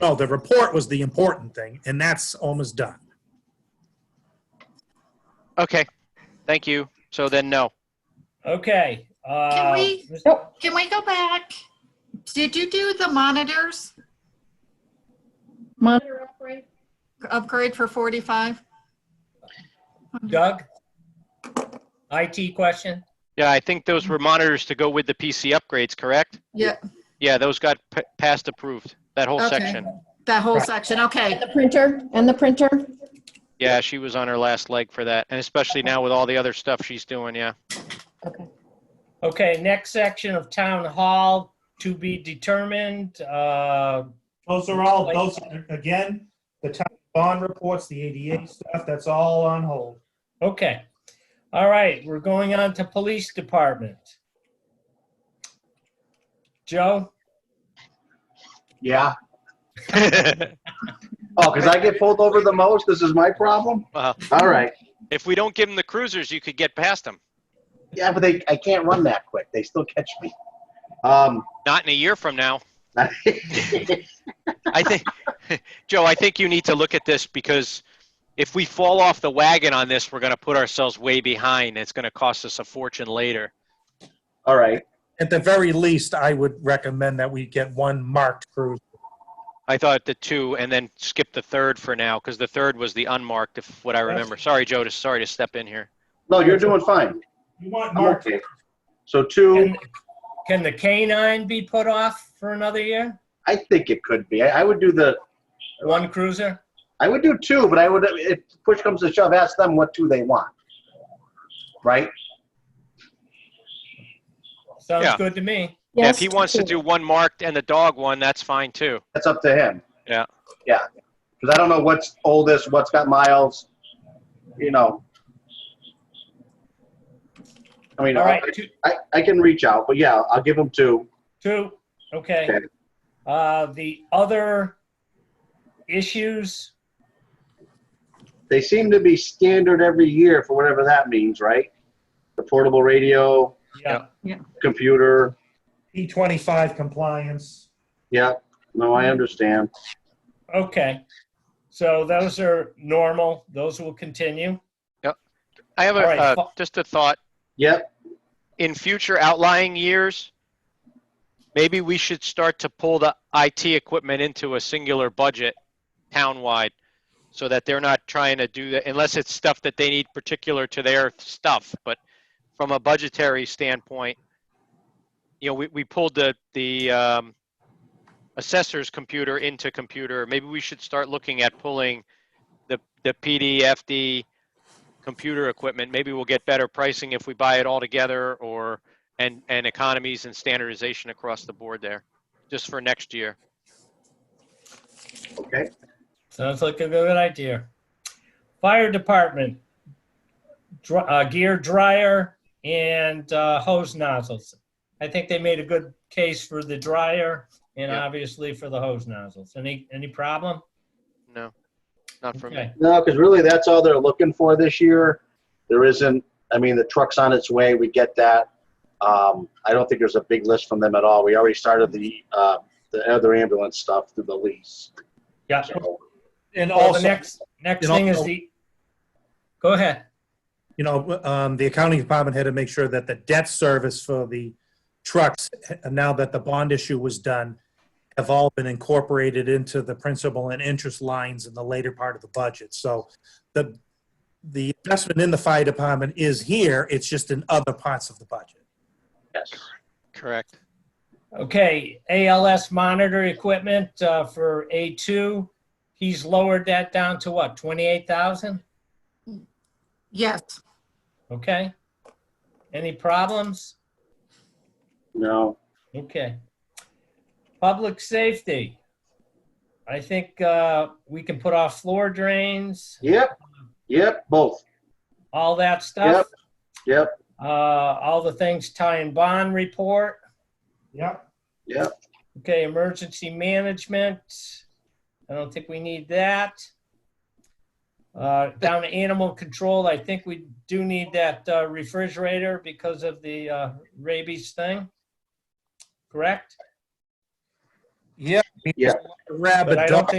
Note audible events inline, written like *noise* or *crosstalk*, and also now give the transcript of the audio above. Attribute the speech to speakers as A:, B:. A: No, the report was the important thing, and that's almost done.
B: Okay, thank you. So then, no.
C: Okay.
D: Can
C: uh,
D: we,
C: Ms-
D: can we go back? Did you do the monitors
E: Monitor upgrade?
D: upgrade for 45?
C: Doug? IT question?
B: Yeah, I think those were monitors to go with the PC upgrades, correct?
D: Yeah,
B: Yeah, those got p- passed approved, that whole
D: Okay.
B: section.
D: that whole section, okay.
E: And the printer, and the printer?
B: Yeah, she was on her last leg for that, and especially now with all the other stuff she's doing, yeah.
E: Okay.
C: Okay, next section of town hall to be determined. Uh,
A: Those are all, those, are- again, the town bond reports, the ADA stuff, that's all on hold.
C: Okay. All right, we're going on to police department. Joe?
F: Yeah. Oh, because I get pulled over the most? This is my problem?
B: Wow.
F: All right.
B: If we don't give them the cruisers, you could get past them.
F: Yeah, but they, I can't run that quick. They still catch me. Um, *laughs*
B: Not in a year from now. I think, *laughs* Joe, I think you need to look at this because if we fall off the wagon on this, we're going to put ourselves way behind. It's going to cost us a fortune later.
F: all right.
A: At the very least, I would recommend that we get one marked cruiser.
B: I thought the two and then skip the third for now because the third was the unmarked, if what I remember. Sorry, Joe, to, sorry to step in here.
F: No, you're doing fine.
A: You want
F: I'm
A: marked,
F: okay. So two,
C: Can can the canine be put off for another year?
F: I think it could be. I, I would do the,
C: One cruiser?
F: I would do two, but I would, if push comes to shove, ask them what two they want. Right?
C: Sounds
B: Yeah.
C: good to me.
B: Yeah,
E: Yes,
B: if he wants to
E: two.
B: do one marked and the dog one, that's fine too.
F: That's up to him.
B: Yeah.
F: Yeah. Because I don't know what's oldest, what's got miles, you know. I mean,
C: All right,
F: I-
C: two,
F: I, I can reach out, but yeah, I'll give them two.
C: two, okay.
F: Okay.
C: Uh, the other issues,
F: They seem to be standard every year for whatever that means, right? The portable radio,
C: yeah,
F: computer.
A: E25 compliance.
F: Yeah, no, I understand.
C: okay. So those are normal, those will continue.
B: I have a,
C: All right,
B: uh,
C: fo-
B: just a thought.
F: Yep,
B: in future outlying years, maybe we should start to pull the IT equipment into a singular budget townwide so that they're not trying to do that unless it's stuff that they need particular to their stuff. But from a budgetary standpoint, you know, we, we pulled the, the um, assessor's computer into computer. Maybe we should start looking at pulling the, the PDFD computer equipment. Maybe we'll get better pricing if we buy it all together or, and, and economies and standardization across the board there, just for next year.
F: okay.
C: Sounds like a good idea. Fire department, dr- uh, gear dryer and uh, hose nozzles. I think they made a good case for the dryer and
B: Yeah.
C: obviously for the hose nozzles. Any, any problem?
B: No, not for me.
C: Okay,
F: No, because really that's all they're looking for this year. There isn't, I mean, the truck's on its way, we get that. Um, I don't think there's a big list from them at all. We already started the, uh, the other ambulance stuff through the lease.
C: yeah.
F: So,
A: And
C: Well, the
A: also,
C: next, next
A: and
C: thing is
A: also-
C: the, go ahead.
A: you know, um, the accounting department had to make sure that the debt service for the trucks, uh, now that the bond issue was done, have all been incorporated into the principal and interest lines in the later part of the budget. So the, the investment in the fire department is here, it's just in other parts of the budget.
F: Yes.
B: Correct.
C: Okay, ALS monitor equipment uh, for A2, he's lowered that down to what, 28,000?
D: Yes,
C: Okay. Any problems?
F: No,
C: Okay. Public safety. I think uh, we can put off floor drains,
F: Yep, yep, both.
C: all that stuff.
F: Yep,
C: Uh, All the things tie in bond report.
A: Yeah.
F: yep.
C: Okay, emergency management. I don't think we need that. Uh, Down to animal control, I think we do need that uh, refrigerator because of the uh, rabies thing. Correct?
F: Yeah.
G: Yeah.
F: Rabbit
A: But I don't
F: dog.
A: think